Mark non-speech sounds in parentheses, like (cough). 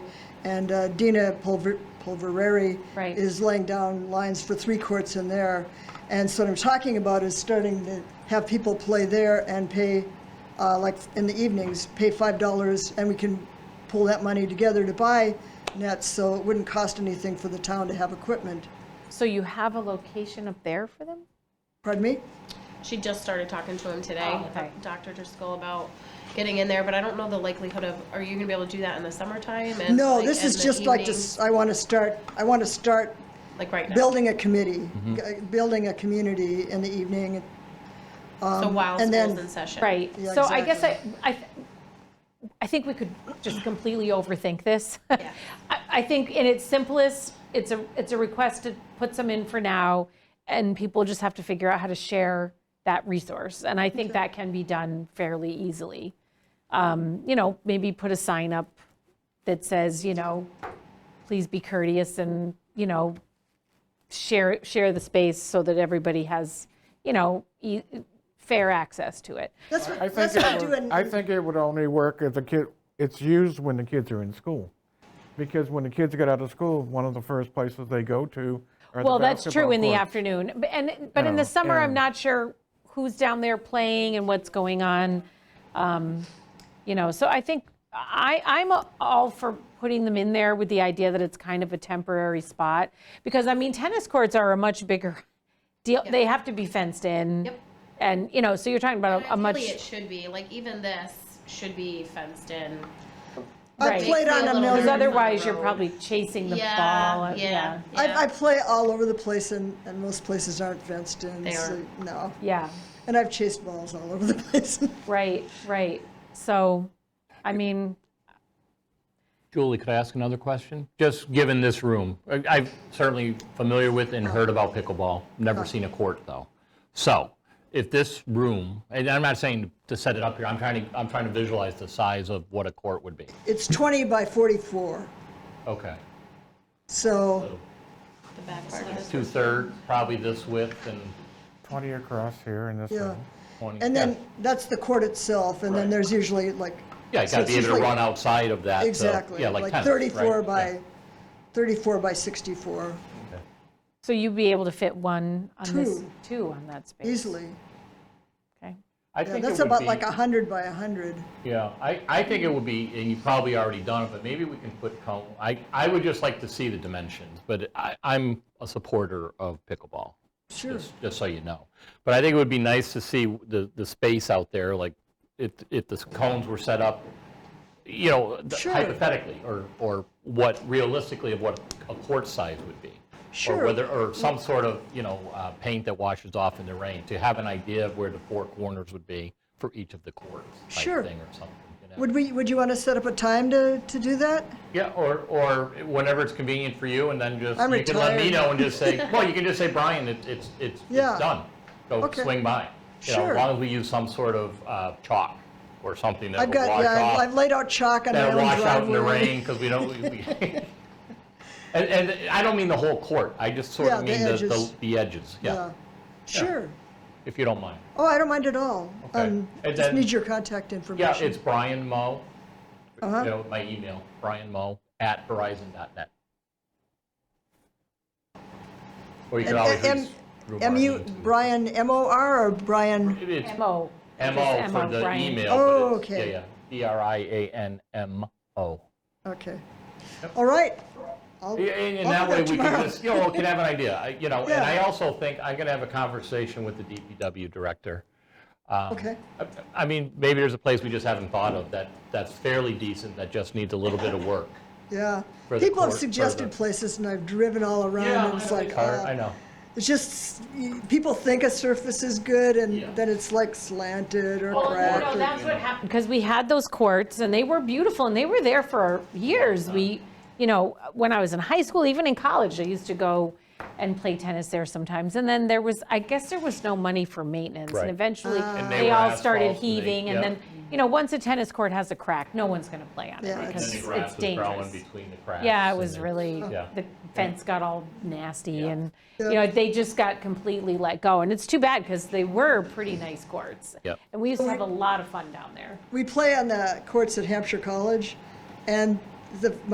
And uh, Dina Pulver- Pulvereri Right. is laying down lines for three courts in there. And so what I'm talking about is starting to have people play there and pay, uh, like in the evenings, pay $5 and we can pull that money together to buy nets, so it wouldn't cost anything for the town to have equipment. So you have a location up there for them? Pardon me? She just started talking to him today, Oh, okay. Dr. Driscoll, about getting in there, but I don't know the likelihood of, are you gonna be able to do that in the summertime and? No, like, this in is the just like, to evening? s- I want to start, I want to start Like right now, building a committee, g- building a community in the evening. so while and school's then- in session. Right. Yeah, So I guess I, I, I think we could just completely overthink this. (laughs) I, I think in its simplest, it's a, it's a request to put some in for now, and people just have to figure out how to share that resource. And I think that can be done fairly easily. Um, You know, maybe put a sign up that says, you know, please be courteous and, you know, share, share the space so that everybody has, you know, e- fair access to it. That's I what, think, that's what I it do would, I in, think it would only work if the kid, it's used when the kids are in school. Because when the kids get out of school, one of the first places they go to are the Well, that's true basketball in the courts. afternoon, but, and, but in No, the summer, I'm and- not sure who's down there playing and what's going on. Um, You know, so I think, I, I'm all for putting them in there with the idea that it's kind of a temporary spot. Because, I mean, tennis courts are a much bigger deal, they have to be fenced in. Yep. And, you know, so you're talking about a- a much. Ideally, it should be, like even this should be fenced in. I right. played on Feel a Because a little nervous. million, other- otherwise, you're road. probably chasing the Yeah, ball. yeah. yeah. I, I play all over the place and, and most places aren't fenced in. They so- aren't. No, Yeah, and I've chased balls all over the (laughs) place. right, right. So, I mean. Julie, could I ask another question? Just given this room, I- I'm certainly familiar with and heard about pickleball, never seen a court, though. So if this room, and I'm not saying to set it up here, I'm trying to, I'm trying to visualize the size of what a court would be. It's 20 by 44, Okay. so The back part of it. Two-third, probably this width and 20 across here and this yeah. one. 20. And yeah. then that's the court itself, and then Right. there's usually like Yeah, you so gotta be it's able to usually- run outside of that. so- exactly Yeah, like like tennis, 34 right? by Yeah. 34 by 64 So you'd be able to fit one on this, Two. two on that space? easily. Okay. I Yeah, think it that's would about be- like 100 by 100. Yeah, I, I think it would be, and you've probably already done it, but maybe we can put cone, I, I would just like to see the dimensions, but I, I'm a supporter of pickleball, Sure. just, just so you know. But I think it would be nice to see the, the space out there, like, if, if the cones were set up, you know, th- Sure. hypothetically, or, or what realistically of what a court size would be. Sure. Or whether, or some sort of, you know, uh, paint that washes off in the rain, to have an idea of where the four corners would be for each of the courts. type Sure. Thing or something, you know? Would we, would you want to set up a time to, to do that? Yeah, or, or whenever it's convenient for you, and then just, I'm you can let me retired. know and just (laughs) say, well, you can just say, Brian, it- it's, it's, Yeah. it's done. Go Okay. swing by. You know, Sure. As long as we use some sort of uh, chalk or something that I've will wash got, yeah, I've- I've off. laid out chalk on my own That'll wash driveway. out in the rain, because we don't, (laughs) we- we- and, and I don't mean the whole court, I just sort of Yeah, the mean the- the, edges. the edges, yeah, Yeah, sure. if you don't mind. Oh, I don't mind at all. Okay. Um, And Just then- need your contact information. Yeah, it's Brian Mo, you Uh-huh. know, my email, brianmo@verizon.net. Or you can always M- use. Rumar M U, Means too. Brian, M-O-R or Brian? It's MO. M-O Just for MO, the Brian. email. Oh, but it's- okay. Yeah, yeah, B-R-I-A-N-M-O. Okay. All right. I'll- Yeah, And and I'll that do way we Oh, tomorrow. can just, you know, we can have an idea, I- you know, and I Yeah. also think I'm going to have a conversation with the DPW director. Um, (laughs) Okay. I- I mean, maybe there's a place we just haven't thought of that, that's fairly decent, that just needs a little bit of work. Yeah. for the People have court- for suggested the- places and I've driven all around and it's like, Car- I uh, know. it's just, y- people think a surface is good Yeah. and then it's like slanted or cracked. or- that's what happened. Because we had those courts, and they were beautiful, and they were there for years. We, you know, when I was in high school, even in college, I used to go and play tennis there sometimes. And then there was, I guess there was no money for maintenance. And Right. eventually, Ah. And they they were all started asphalt, and they- heaving, and yeah. then, you know, once a tennis court has a crack, no one's going to play on it Yeah, it's- because And the it's dangerous. between the cracks. Yeah, it was really, (laughs) Yeah. the fence got all nasty Yeah. and, you know, they just got completely let go. And it's too bad because they were pretty nice courts. Yep. And we used to have a lot of fun down there. We play on the courts at Hampshire College and the,